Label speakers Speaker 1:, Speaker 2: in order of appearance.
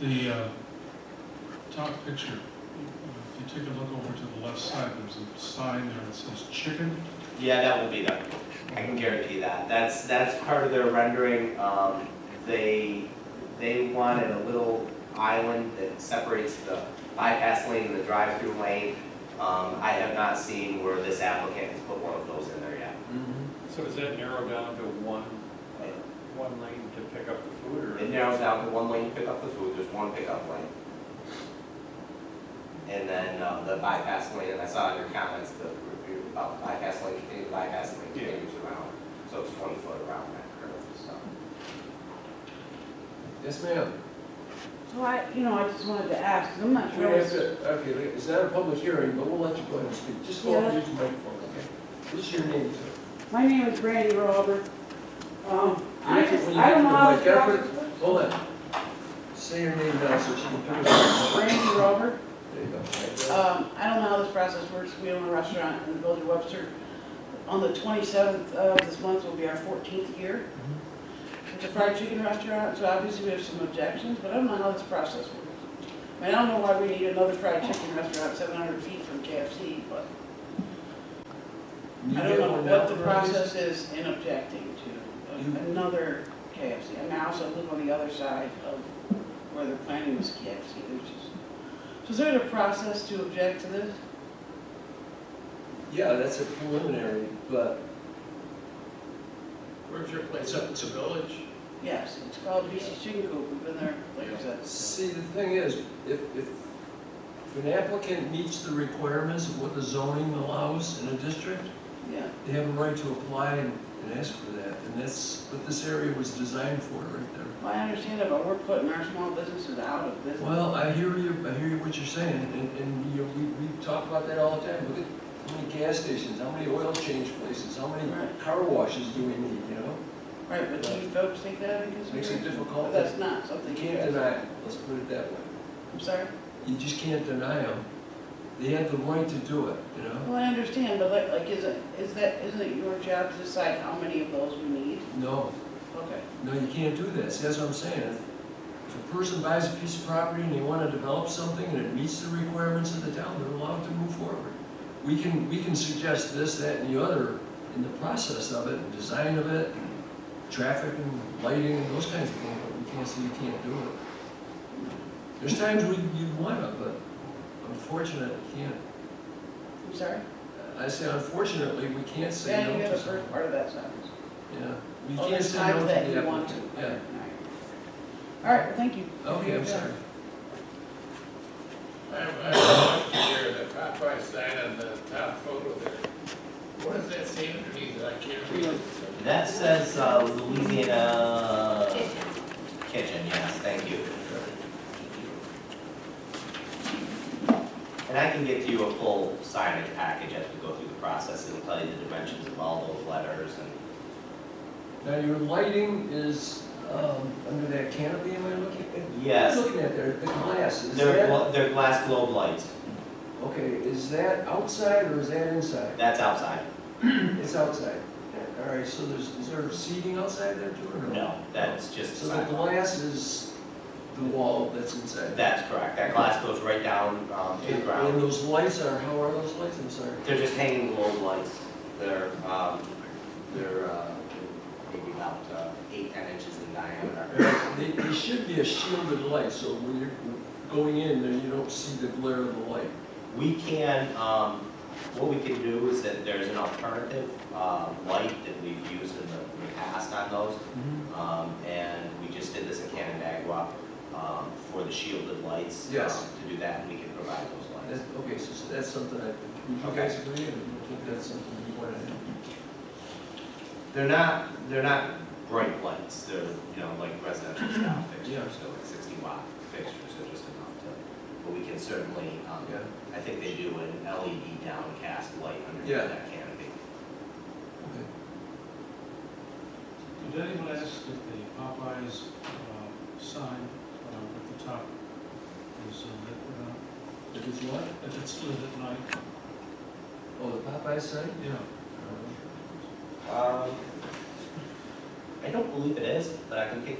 Speaker 1: The uh, top picture, uh, if you take a look over to the left side, there's a sign there that says chicken.
Speaker 2: Yeah, that will be them. I can guarantee that. That's, that's part of their rendering. Um, they, they wanted a little island that separates the bypass lane and the drive-through lane. Um, I have not seen where this applicant has put one of those in there yet.
Speaker 3: So is that narrowed down to one, uh, one lane to pick up the food or?
Speaker 2: It narrows down to one lane to pick up the food, there's one pickup lane. And then, um, the bypass lane, and I saw in your comments, the review about the bypass lane, continue the bypass lane
Speaker 3: Yeah.
Speaker 2: continues around. So it's twenty foot around that curve, so.
Speaker 4: Yes, ma'am.
Speaker 5: So I, you know, I just wanted to ask, 'cause I'm not
Speaker 4: We don't
Speaker 5: sure.
Speaker 4: have
Speaker 5: what's-
Speaker 4: to- Okay, wait, it's not a public hearing, but we'll let you go ahead and speak. Just go up
Speaker 5: Yeah.
Speaker 4: and use the microphone, okay? What's your name, sir?
Speaker 5: My name is Brandy Robert. Um, I
Speaker 4: Can you-
Speaker 5: just,
Speaker 4: when you
Speaker 5: I
Speaker 4: get
Speaker 5: don't
Speaker 4: to
Speaker 5: know
Speaker 4: the
Speaker 5: how
Speaker 4: mic,
Speaker 5: this
Speaker 4: gotta
Speaker 5: process
Speaker 4: put-
Speaker 5: works.
Speaker 4: Hold on. Say your name now so she can put it on.
Speaker 5: Brandy Robert,
Speaker 4: There you go. right there.
Speaker 5: um, I don't know how this process works. We own a restaurant in the village of Webster. On the twenty-seventh of this month will be our fourteenth year.
Speaker 4: Mm-hmm.
Speaker 5: It's a fried chicken restaurant, so obviously we have some objections, but I don't know how this process works. I mean, I don't know why we need another fried chicken restaurant seven hundred feet from KFC, but
Speaker 4: You
Speaker 5: I
Speaker 4: get
Speaker 5: don't know
Speaker 4: one now,
Speaker 5: what the
Speaker 4: please?
Speaker 5: process is in objecting to another KFC. And I also live on the other side of where they're planning this KFC, which is, so is there a process to object to this?
Speaker 4: Yeah, that's a preliminary, but
Speaker 6: Where's your place? Up It's a village?
Speaker 5: Yes, it's called BC Chicken Coop, we've been there, like I said.
Speaker 4: see, the thing is, if, if, if an applicant meets the requirements of what the zoning allows in a district,
Speaker 5: Yeah,
Speaker 4: they have a right to apply and and ask for that, and that's what this area was designed for, right there.
Speaker 5: well, I understand that, but we're putting our small businesses out of business.
Speaker 4: Well, I hear you, I hear you what you're saying, and, and you, we, we talk about that all the time, look at how many gas stations, how many oil change places, how many
Speaker 5: Right.
Speaker 4: car washes do we need, you know?
Speaker 5: Right, but do you folks take that into
Speaker 4: Makes it
Speaker 5: consideration?
Speaker 4: difficult,
Speaker 5: That's
Speaker 4: you
Speaker 5: not something you
Speaker 4: can't
Speaker 5: guys,
Speaker 4: deny it, let's put it that way,
Speaker 5: I'm sorry?
Speaker 4: you just can't deny them, they have the right to do it, you know?
Speaker 5: Well, I understand, but like, like, is it, is that, isn't it your job to decide how many of those we need?
Speaker 4: No,
Speaker 5: Okay.
Speaker 4: no, you can't do that, see, that's what I'm saying, if if a person buys a piece of property and they wanna develop something and it meets the requirements of the town, they're allowed to move forward. We can, we can suggest this, that, and the other in the process of it, and design of it, traffic and lighting and those kinds of things, but we can't say you can't do it. There's times we, you wanna, but unfortunately, you can't.
Speaker 5: I'm sorry?
Speaker 4: I say unfortunately, we can't say
Speaker 5: Yeah,
Speaker 4: no
Speaker 5: you got
Speaker 4: to
Speaker 5: the first
Speaker 4: something.
Speaker 5: part of that sentence.
Speaker 4: Yeah, we
Speaker 5: Oh,
Speaker 4: can't
Speaker 5: there's
Speaker 4: say no to
Speaker 5: times
Speaker 4: the
Speaker 5: that you want to.
Speaker 4: applicant.
Speaker 5: All
Speaker 4: Yeah,
Speaker 5: right, All right, well, thank you.
Speaker 4: okay, I'm sorry.
Speaker 6: I have, I have a question here, the Popeye sign on the top photo there. What does that say underneath it? I can't read it.
Speaker 2: That says uh, Louisiana Kitchen, yes, thank you. And I can get you a full signage package as we go through the process and tell you the dimensions of all those letters and
Speaker 4: Now, your lighting is um, under that canopy, am I looking at? what am I
Speaker 2: yes,
Speaker 4: Looking at there, the glass, is
Speaker 2: they're,
Speaker 4: that,
Speaker 2: glo- they're glass globe lights.
Speaker 4: okay, is that outside or is that inside?
Speaker 2: That's outside.
Speaker 4: It's outside. Yeah, All right, so there's, is there seating outside there too or no?
Speaker 2: No, that's just
Speaker 4: So the
Speaker 2: sidewalk.
Speaker 4: glass is the wall that's inside?
Speaker 2: That's correct. That glass goes right down um, to the
Speaker 4: And and
Speaker 2: ground.
Speaker 4: those lights are, how are those lights? I'm sorry.
Speaker 2: They're just hanging globe lights. They're, um, they're uh, maybe about uh, eight, ten inches in diameter.
Speaker 4: They, they should be a shielded light, so when you're going in there, you don't see the glare of the light.
Speaker 2: We can, um, what we can do is that there's an alternative, um, light that we've used in the, in the past on those. Um, and we just did this in Canandaigua, um, for the shielded lights.
Speaker 4: Yes.
Speaker 2: um, To do that, and we can provide those
Speaker 4: That's,
Speaker 2: lights.
Speaker 4: okay, so so that's something I, would you
Speaker 2: Okay.
Speaker 4: guys agree, and I think that's something you want to do?
Speaker 2: They're not, they're not bright lights, they're, you know, like residential style fixtures,
Speaker 4: Yeah.
Speaker 2: so like sixty watt fixtures, so just enough to, but we can certainly, um,
Speaker 4: Yeah.
Speaker 2: I think they do an LED downcast light underneath
Speaker 4: Yeah.
Speaker 2: that canopy.
Speaker 4: Okay.
Speaker 1: Did anyone ask if the Popeyes uh, sign uh, at the top is uh, lit or
Speaker 4: If it's what?
Speaker 1: not? If it's lit at night,
Speaker 4: Oh, the Popeye sign?
Speaker 1: yeah.
Speaker 4: Uh,
Speaker 2: Um, I don't believe it is, but I can take a